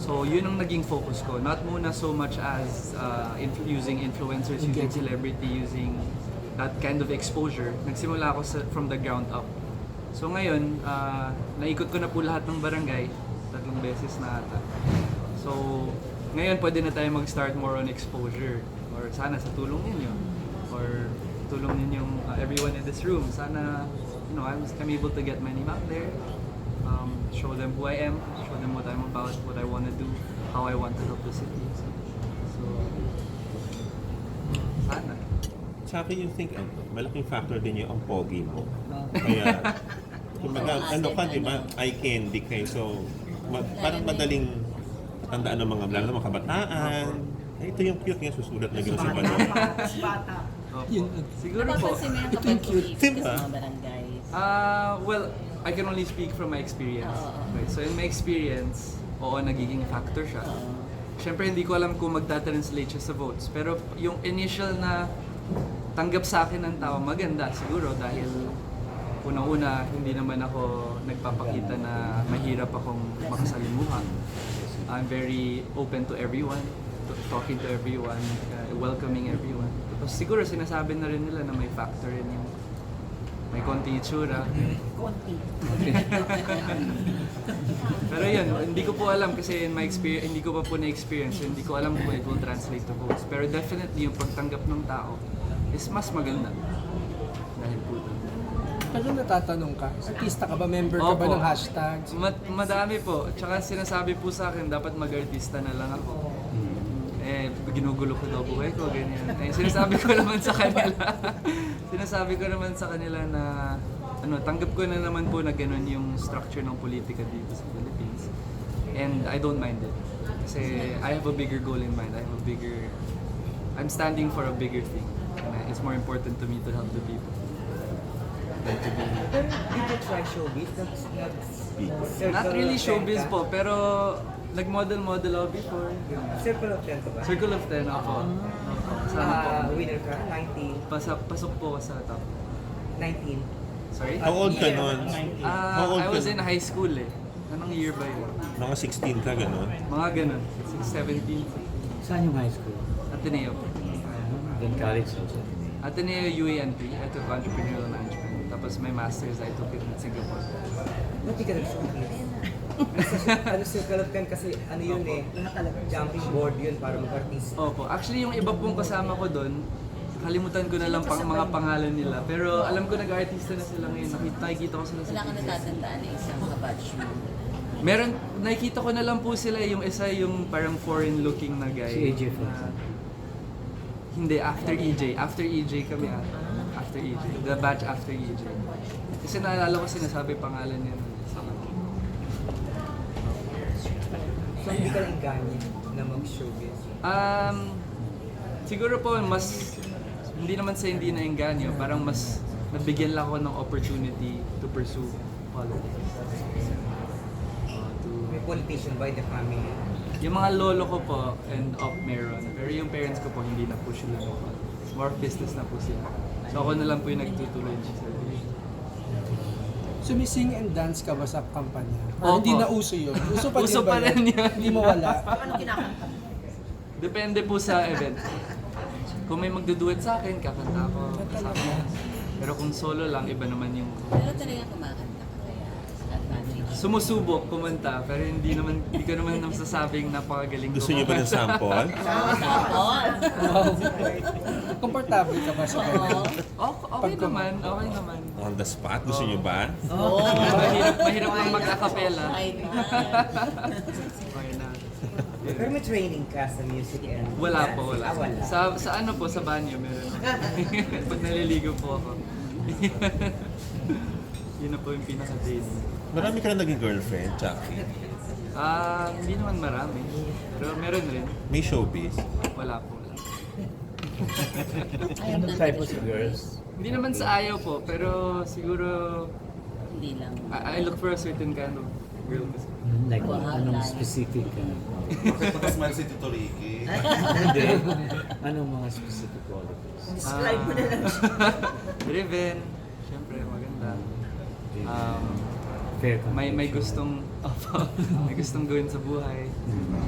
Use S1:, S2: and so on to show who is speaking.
S1: So yun ang naging focus ko. Not muna so much as uh, influ- using influencers, using celebrity, using that kind of exposure. Nagsimula ako sa, from the ground up. So ngayon, uh, naikot ko na po lahat ng barangay. Tatlong beses na ata. So ngayon pwede na tayo mag-start more on exposure. Or sana sa tulong ninyo. Or tulong ninyong uh, everyone in this room. Sana, you know, I'm, I'm able to get my name out there um, show them who I am, show them what I'm about, what I want to do, how I want to help the city. So, so sana.
S2: Sa akin yung think, ano, malaking factor din yung ang pogi mo. Kaya, kumbaga, ano ka, di ba, eye candy kayo. So, ma- parang madaling tandaan ng mga lalo ng mga kabataan. Ay, ito yung cute nga susulat na gano'n sa balon.
S3: Bata.
S1: Opo.
S4: Yun, ag-
S1: Siguro po.
S4: Ito yung cute.
S2: Diba?
S5: Sa mga barangay.
S1: Uh, well, I can only speak from my experience.
S5: Oo.
S1: Right? So in my experience, oo, nagiging factor siya. Siyempre, hindi ko alam kung magta-translate siya sa votes. Pero yung initial na tanggap sa akin ng tao, maganda siguro dahil unang-una, hindi naman ako nagpapakita na mahirap akong makasalimuha. I'm very open to everyone, to- talking to everyone, uh, welcoming everyone. Tapos siguro sinasabi na rin nila na may factor rin yung may konti itsura.
S5: Konti.
S1: Pero yun, hindi ko po alam kasi in my experience, hindi ko pa po na-experience, so hindi ko alam kung it will translate to votes. Pero definitely yung pagtanggap ng tao is mas maganda. Dahil po doon.
S4: Pero Ano natatanong ka, artista ka ba? Member ka ba
S1: Opo.
S4: ng hashtag?
S1: Ma- madami po. Tsaka sinasabi po sa akin, dapat mag-artista na lang ako.
S4: Mm.
S1: Eh, ginugulo ko daw buhay ko, ganyan. Eh, sinasabi ko naman sa kanila, sinasabi ko naman sa kanila na, ano, tanggap ko na naman po na ganun yung structure ng politika dito sa Philippines. And I don't mind it. Kasi I have a bigger goal in mind. I have a bigger, I'm standing for a bigger thing. And I- it's more important to me to help the people. Than to be
S3: Pero did you try showbiz? That's not...
S1: Not really showbiz po, pero nag-model-model ako before.
S3: Circle of 10 ka ba?
S1: Circle of 10 ako. Kasama po.
S3: Ah, winner ka? 19.
S1: Pasa, pasok po ako sa top.
S3: 19.
S1: Sorry?
S2: How old ka nun?
S1: Ah,
S2: How old
S1: I
S2: ka
S1: was in
S2: nun?
S1: high school eh. Anong year ba yun?
S2: Mga 16 ka, gano'n.
S1: Mga ganun. 6, 17.
S6: Saan yung high school?
S1: Ateneo.
S6: Then college also.
S1: Ateneo UANP. I took entrepreneurial management. Tapos may master's I took in Singapore.
S3: Ba't di ka nag-showbiz? ano, circle of 10 kasi ano yun eh, jumping board yun para mag-artist.
S1: Opo. Actually, yung iba pong kasama ko doon, kalimutan ko na lang pang mga pangalan nila. Pero alam ko nag-artista na sila ngayon. Nakita, nakikita ko sila sa
S5: Wala ka
S1: pictures.
S5: natatandaan na isang kabatch mo.
S1: Meron, nakikita ko na lang po sila yung isa yung parang foreign looking na guy.
S6: Si AJ po.
S1: Na- hindi, after EJ. After EJ kami ata. After EJ. The batch after EJ. Kasi naalala ko sinasabi pangalan niya. nun.
S3: So hindi ka lang ganyan na mag-showbiz.
S1: Um, siguro po mas, hindi naman sa hindi na parang mas nabigyan lang ako ng opportunity to pursue politics. Uh, to
S3: May politician by the family.
S1: Yung mga lolo ko po and up meron. Pero yung parents ko po hindi na po sila ng politics. More business na po sila. So ako na lang po yung nagtutuloy ng service.
S4: Sumising and dance ka ba sa kampanya?
S1: Opo.
S4: Or hindi na uso yun? Uso pa
S1: Uso
S4: din ba
S1: pa rin yun.
S4: Hindi mawala.
S1: Depende po sa event. Kung may magduduet sa akin, kakanta ako. Kasama yan. Pero kung solo lang, iba naman yung...
S5: Pero talaga kumakanta ka kaya. Advantage.
S1: Sumusubok kumanta, pero hindi naman, hindi ko naman nasasabing napakagaling ko.
S2: Gusto niyo ba ng sample?
S5: Tapon!
S4: Wow. Komportable ka ba sa
S5: Oo.
S4: ganun?
S1: Okay, okay naman, okay naman.
S2: On the spot? Gusto niyo ba?
S5: Oo.
S1: Oh,
S3: Oh.
S1: Mahirap, mahirap lang mag-acapella.
S5: Ay, man.
S1: Okay na. Yun.
S3: Pero may training ka sa music and
S1: Wala po, wala.
S3: Ah, wala.
S1: Sa, sa ano po, sa banyo meron ako. Pag naliligo po ako. Yun na po yung pinaka-date.
S2: Marami ka na naging girlfriend, Chucky.
S1: Ah, hindi naman marami. Pero meron rin.
S2: May showbiz.
S1: Wala po. wala.
S5: Ayaw
S6: Anong
S5: lang
S6: type
S5: talaga
S6: of
S5: siya.
S6: girls?
S1: Hindi naman sa ayaw po, pero siguro
S5: Hindi lang.
S1: I, I look for a certain kind of girl kasi.
S6: Hmm, Like,
S5: Wow,
S6: anong
S5: layo.
S6: specific? ano?
S2: Tapos man si Tito Ricky.
S6: Hindi. Anong mga specific qualities?
S1: Describe mo na Ah, lang. Driven. Siyempre, maganda. Um,
S6: Fair
S1: may may
S6: competition.
S1: gustong
S6: Hmm.
S1: opo, may gustong gawin sa buhay.